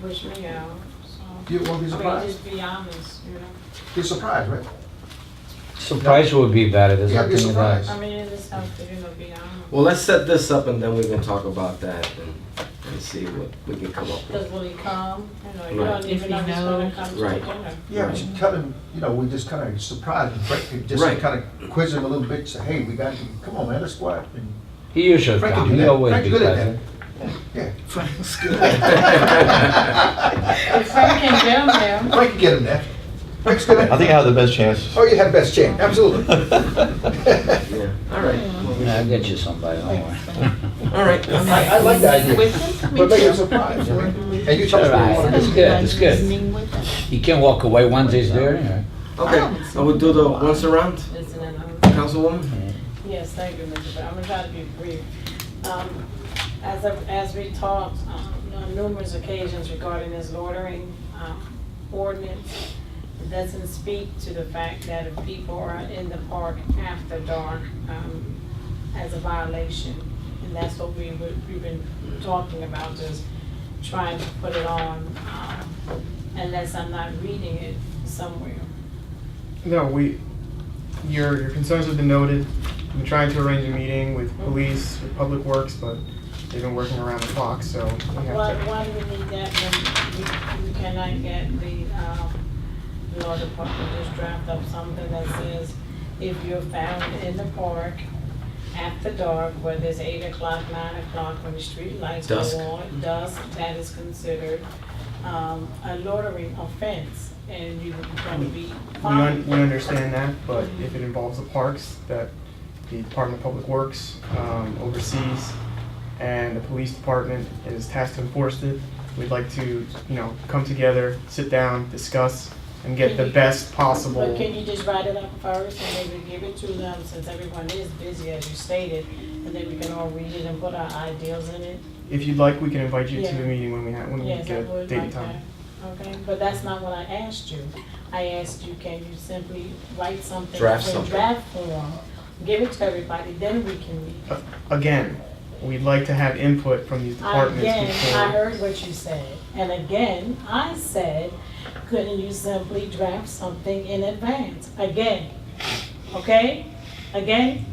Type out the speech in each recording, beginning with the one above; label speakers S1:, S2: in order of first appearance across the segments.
S1: push me out, so.
S2: You won't be
S1: I mean,
S2: surprised.
S1: just be honest, you know,
S2: Be surprised, right?
S3: Surprise would be better, there's
S2: Yeah, be
S3: nothing in
S2: surprised.
S1: I mean, it just helps to, you know, be honest.
S4: Well, let's set this up and then we can talk about that and, and see what we can come up
S1: Because
S4: with.
S1: when he come, you know, you
S4: Right.
S1: don't
S5: If
S1: even
S5: he
S1: know he's gonna
S5: knows.
S1: come to
S4: Right.
S1: dinner.
S2: Yeah, but you tell him, you know, we just kind of surprised and break, and just
S4: Right.
S2: kind of quiz him a little bit. Say, hey, we got you. Come on, man, let's go out. And,
S3: He usually
S2: Frank can
S3: come,
S2: do
S3: he
S2: that.
S3: always
S2: Frank
S3: be
S2: good at that.
S3: present.
S2: yeah,
S6: Frank's good.
S1: If Frank can jam them,
S2: Frank can get him there. Frank's good. At
S6: I think I have the best chance.
S2: Oh, you had best chance. Absolutely.
S4: Yeah, all right. Well, we-
S3: Yeah, I'll get you somebody, don't worry.
S4: All right.
S2: I, I like that idea,
S5: With them?
S2: but make it a surprise. you know?
S1: Mm-hmm.
S2: And you tell us what you want to
S3: That's
S2: do.
S3: good, that's good. He can walk away once he's there, yeah.
S4: Okay,
S1: Oh.
S4: I will do the once around,
S1: listen, and I'm.
S4: Councilwoman.
S1: Yes, thank you, Mr. Brown. I'm gonna try to be brief. Um, As, I- as we talked um, on numerous occasions regarding this loitering um, ordinance, it doesn't speak to the fact that if people are in the park after dark um, as a violation, and that's what we, would- we've been talking about, just trying to put it on, um, unless I'm not reading it somewhere.
S7: No, we, your, your concerns have been noted. We tried to arrange a meeting with
S1: Mm-hmm.
S7: police, with Public Works, but they've been working around the clock, so we
S1: Why,
S7: have to.
S1: why do we need that when we, we cannot get the, um, law department to just draft up something that says if you're found in the park after dark, whether it's eight o'clock, nine o'clock, when the street lights go
S4: Dusk.
S1: on, dusk, that is considered, um, a loitering offense and you're gonna be
S7: We, un-
S1: fined.
S7: we understand that, but if it involves the parks that the Department of Public Works um, oversees and the police department is tasked to enforce it, we'd like to, you know, come together, sit down, discuss, and get the best possible.
S1: But can you just write it up first and maybe give it to them since everyone is busy as you stated? And then we can all read it and put our ideals in it?
S7: If you'd like, we can invite you to the
S1: Yeah.
S7: meeting when we have, when we
S1: Yes, I
S7: get a
S1: would
S7: date and
S1: like
S7: time.
S1: that. Okay, but that's not what I asked you. I asked you, can you simply write something?
S4: Draft
S1: in
S4: something.
S1: Draft form, give it to everybody, then we can meet.
S7: Again, we'd like to have input from these departments
S1: Again, I
S7: before.
S1: heard what you said, and again, I said, couldn't you simply draft something in advance? Again, okay? Again?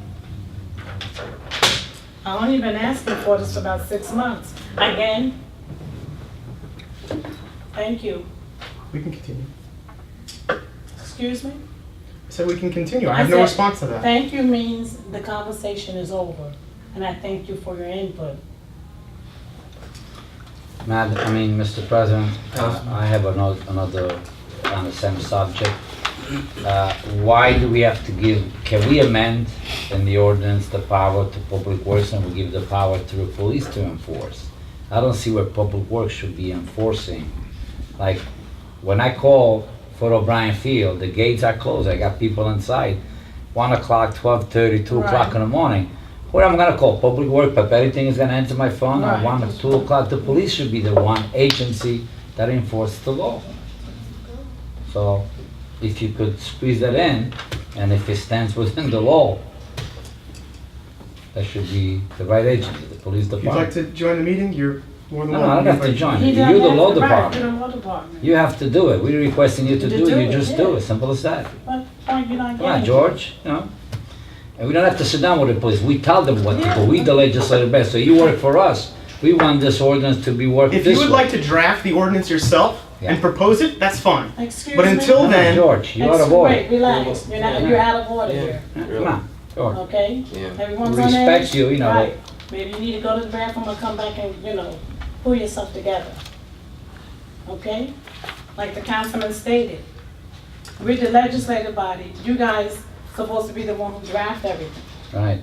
S1: I only been asking for this for about six months. Again? Thank you.
S7: We can continue.
S1: Excuse me?
S7: So we can continue. I
S1: I
S7: have no
S1: said-
S7: response to that.
S1: Thank you means the conversation is over, and I thank you for your input.
S3: Madam, I mean, Mr. President, uh,
S4: Councilman.
S3: I have ano- another, on the same subject. Uh, Why do we have to give, can we amend in the ordinance the power to Public Works and we give the power to the police to enforce? I don't see where Public Works should be enforcing. Like, when I call for O'Brien Field, the gates are closed, I got people inside, one o'clock, twelve thirty, two o'clock
S1: Right.
S3: in the morning. Where am I gonna call? Public Works, but everything is gonna enter my phone at
S1: Right.
S3: one or two o'clock. The police should be the one agency that enforces the law. So if you could squeeze that in, and if it stands within the law, that should be the right agency, the police
S7: If you'd like
S3: department.
S7: to join the meeting, you're more than
S3: No, no, I
S7: welcome.
S3: don't have to
S7: Invite-
S3: join
S1: He
S3: it.
S1: don't
S3: You're the
S1: have
S3: law
S1: to- right,
S3: department.
S1: you're the law department.
S3: You have to do it. We're requesting you to
S1: To
S3: do
S1: do
S3: it. You
S1: it,
S3: just
S1: yeah.
S3: do it. Simple as that.
S1: What point you not
S3: Come on,
S1: getting?
S3: George, you know? And we don't have to sit down with the police. We tell them what to
S1: Yeah.
S3: do. We the legislative best. So you work for us. We want this ordinance to be worked
S7: If
S3: this
S7: you would
S3: way.
S7: like to draft the ordinance yourself
S3: Yeah.
S7: and propose it, that's fine.
S1: Excuse me?
S7: But until
S3: Come on,
S7: then,
S3: George, you are a
S1: Wait,
S3: boy.
S1: relax, you're not, you're out of order
S4: Yeah.
S1: here,
S3: Come on, George.
S1: okay?
S4: Yeah.
S1: Everyone's on edge?
S3: Respect you, you know.
S1: Right, maybe you need to go to the bathroom or come back and, you know, pull yourself together. Okay? Like the councilman stated, we're the legislative body, you guys supposed to be the one who draft everything.
S3: Right.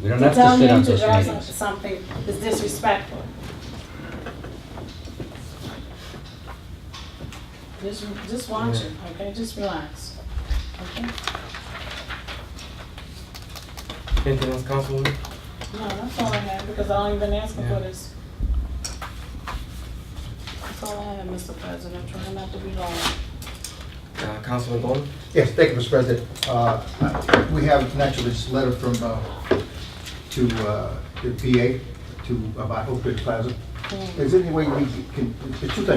S3: We don't
S1: To
S3: have
S1: tell
S3: to sit
S1: him
S3: on
S1: to
S3: those
S1: draw some-
S3: meetings.
S1: something is disrespectful. Just, just watch it, okay, just relax, okay?
S4: Anything else, Councilwoman?
S1: No, that's all I have, because I ain't been asking for this. That's all I have, Mr. President, I'm trying not to be long.
S4: Uh, Councilman Gollman?
S2: Yes, thank you, Mr. President. Uh, We have naturally this letter from, uh, to uh, the PA, to, about Oak Ridge Plaza. Is there any way we can, the two things